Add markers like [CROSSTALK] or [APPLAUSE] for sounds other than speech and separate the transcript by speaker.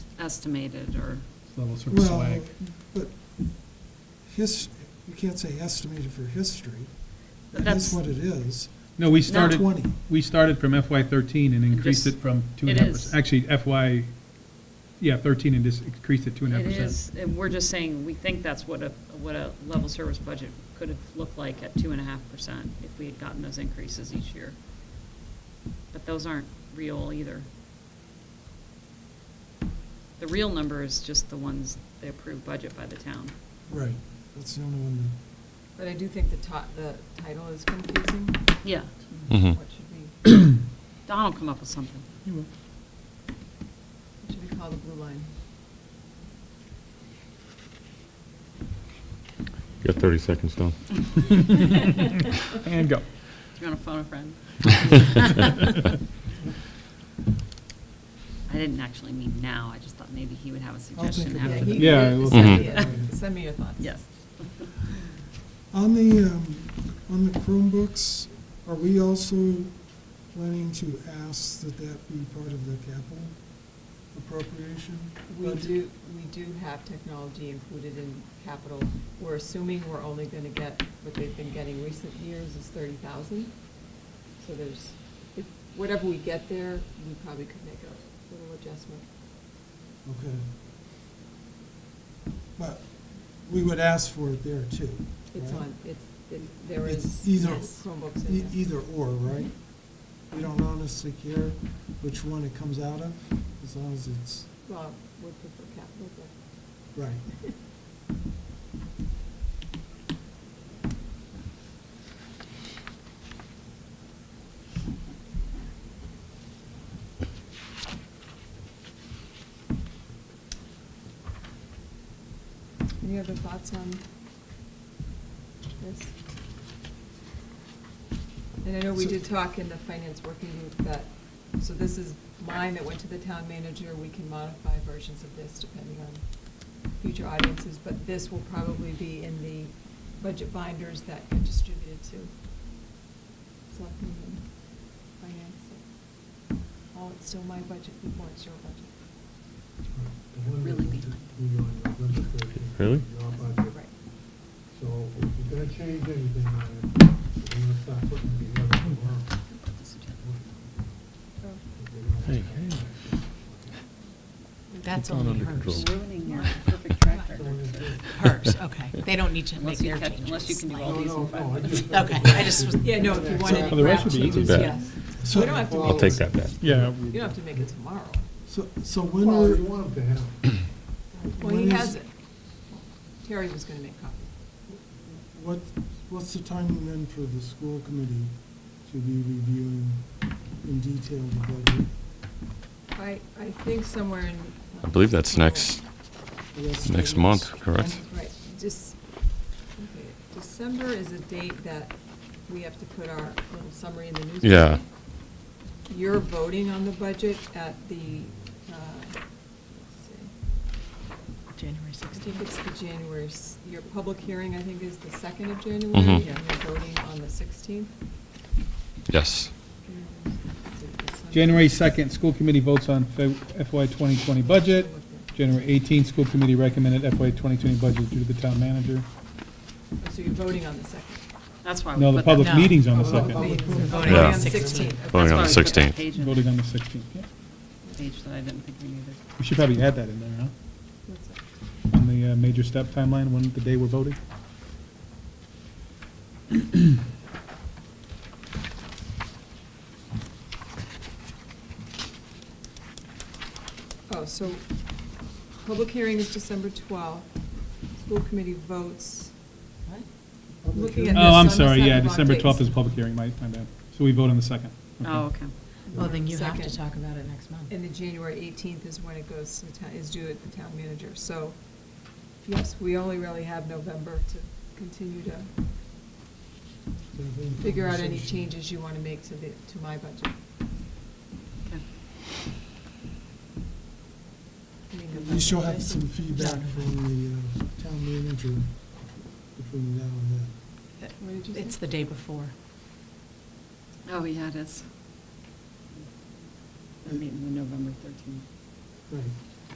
Speaker 1: estimated or,
Speaker 2: little sort of
Speaker 3: Well,
Speaker 2: swag.
Speaker 3: but his, you can't say estimated for history. It is
Speaker 1: That's-
Speaker 3: what it is.
Speaker 2: No, we
Speaker 1: Not
Speaker 2: started,
Speaker 3: 20.
Speaker 2: we started from FY thirteen and increased
Speaker 1: Just-
Speaker 2: it from two
Speaker 1: it
Speaker 2: and a half
Speaker 1: is.
Speaker 2: percent. Actually, FY, yeah, thirteen and just increased it two and a half
Speaker 1: it
Speaker 2: percent.
Speaker 1: is, and we're just saying, we think that's what a, what a level service budget could have looked like at two and a half percent if we had gotten those increases each year. But those aren't real either. The real number is just the ones, the approved budget by the town.
Speaker 3: Right, that's the only one
Speaker 4: But I do think the ti- the title is confusing.
Speaker 1: Yeah,
Speaker 5: Mhm.
Speaker 4: What should be,
Speaker 1: Don will come up with something. [LAUGHS]
Speaker 4: it should be called the blue line.
Speaker 5: You got 30 seconds, Don.
Speaker 2: And go.
Speaker 1: Do you want to phone a friend?
Speaker 2: [LAUGHS]
Speaker 1: I didn't actually mean now, I just thought maybe he would have a
Speaker 3: I'll
Speaker 1: suggestion
Speaker 3: think
Speaker 1: after.
Speaker 3: about
Speaker 4: Yeah,
Speaker 3: it.
Speaker 4: you-
Speaker 2: Yeah, I will-
Speaker 4: Send me
Speaker 3: Mhm.
Speaker 4: a- send me your thoughts.
Speaker 1: Yes.
Speaker 3: On the, um, on the Chromebooks, are we also planning to ask that that be part of the capital appropriation?
Speaker 4: We
Speaker 3: budget?
Speaker 4: do, we do have technology included in capital. We're assuming we're only going to get, what they've been getting recent years is 30,000. So there's, if- whatever we get there, we probably could make a little adjustment.
Speaker 3: Okay. But we would ask for it there too.
Speaker 4: It's
Speaker 3: right?
Speaker 4: on, it's, it- there is
Speaker 3: It's either-
Speaker 4: Chromebooks
Speaker 3: E-
Speaker 4: in there.
Speaker 3: Either or, right? We don't honestly care which one it comes out of, as long as it's
Speaker 4: Well, would prefer capital, but.
Speaker 3: right.
Speaker 4: Any other thoughts on this? And I know we
Speaker 3: So-
Speaker 4: did talk in the finance working group that, so this is mine that went to the town manager, we can modify versions of this depending on future audiences, but this will probably be in the budget binders that get distributed to selectmen and finance. so. Oh, it's still my budget before it's your budget.
Speaker 1: Really be
Speaker 4: You're
Speaker 5: Really?
Speaker 4: right.
Speaker 6: So if you're gonna change anything, on it, you're gonna start putting it together tomorrow.
Speaker 4: Oh,
Speaker 5: Hey,
Speaker 7: That's
Speaker 5: It's not
Speaker 7: only
Speaker 5: under
Speaker 7: hers.
Speaker 5: control.
Speaker 1: Ruining your perfect track record.
Speaker 7: Hers,
Speaker 5: [LAUGHS]
Speaker 7: okay. They don't need to make
Speaker 1: Unless you
Speaker 7: their
Speaker 1: catch,
Speaker 7: changes.
Speaker 1: unless you can do
Speaker 7: Like-
Speaker 1: all these in
Speaker 6: No,
Speaker 1: five
Speaker 6: no, no, I
Speaker 1: minutes.
Speaker 4: [LAUGHS]
Speaker 6: just-
Speaker 7: Okay, I just was.
Speaker 4: Yeah, no, if you wanted
Speaker 3: Well,
Speaker 4: to
Speaker 3: the
Speaker 4: grab
Speaker 2: rest would be
Speaker 4: changes,
Speaker 5: easy.
Speaker 4: yes.
Speaker 3: So-
Speaker 4: We don't have to.
Speaker 5: I'll take that bet.
Speaker 2: Yeah.
Speaker 4: You don't have to make it tomorrow.
Speaker 3: So, so when
Speaker 6: Well,
Speaker 3: were,
Speaker 6: you want them to have. it.
Speaker 4: Well, he
Speaker 3: When is-
Speaker 4: has it. Terry was gonna make copies.
Speaker 3: [CLEARS THROAT] what, what's the timing then for the school committee to be reviewing in detail the budget?
Speaker 4: I, I think somewhere in.
Speaker 5: I believe that's next,
Speaker 3: The rest of
Speaker 5: next
Speaker 3: it
Speaker 5: month,
Speaker 3: is-
Speaker 5: correct?
Speaker 4: Right, just, okay, December is a date that we have to put our little summary in the newspaper.
Speaker 5: Yeah.
Speaker 4: You're voting on the budget at the, uh, let's
Speaker 7: January
Speaker 4: see, I think it's the
Speaker 7: 16th.
Speaker 4: January, s- your public hearing, I think, is the second of January,
Speaker 5: Mhm.
Speaker 4: and you're voting on the sixteenth.
Speaker 5: Yes.
Speaker 2: January second, school committee votes on Fe- FY twenty twenty budget.
Speaker 4: Oh,
Speaker 2: January eighteenth, school committee recommended FY twenty twenty budget due to the town manager.
Speaker 4: So you're voting on the second.
Speaker 1: That's why we
Speaker 2: No,
Speaker 1: put
Speaker 2: the
Speaker 1: that-
Speaker 2: public
Speaker 7: No.
Speaker 2: meeting's on the
Speaker 3: Public
Speaker 2: second,
Speaker 3: meeting.
Speaker 4: Voting
Speaker 7: Voting
Speaker 5: Yeah.
Speaker 4: on
Speaker 5: on
Speaker 4: the
Speaker 7: 16th.
Speaker 4: 16th.
Speaker 5: Voting on
Speaker 1: That's
Speaker 5: the
Speaker 1: why we put that
Speaker 5: 16th.
Speaker 1: page in,
Speaker 2: voting on the sixteenth. yeah.
Speaker 1: page that I didn't think we needed.
Speaker 2: We should probably add that in there, huh?
Speaker 4: That's it.
Speaker 2: On the uh, major step timeline, when the day we're voting.
Speaker 4: Oh, so, public hearing is December 12th. School committee votes.
Speaker 3: Public
Speaker 4: Looking
Speaker 3: hearing.
Speaker 4: at
Speaker 2: Oh, I'm
Speaker 4: this on the
Speaker 2: sorry, yeah,
Speaker 4: second of
Speaker 2: December
Speaker 4: October.
Speaker 2: 12th is a public hearing, my, my bad. So we vote on the second.
Speaker 1: Oh, okay.
Speaker 7: Well, then you have to
Speaker 4: Second.
Speaker 7: talk about it next month.
Speaker 4: And then January 18th is when it goes to the town, is due at the town manager. So, yes, we only really have November to continue to figure out any changes you want to make to the, to my budget.
Speaker 1: Okay.
Speaker 4: I mean, the
Speaker 3: We
Speaker 4: budget.
Speaker 3: shall have some feedback from the uh, town manager between now and then.
Speaker 4: What did you say?
Speaker 7: It's the day before.
Speaker 1: Oh, yeah, it is. Our meeting on November 13th.
Speaker 3: Right.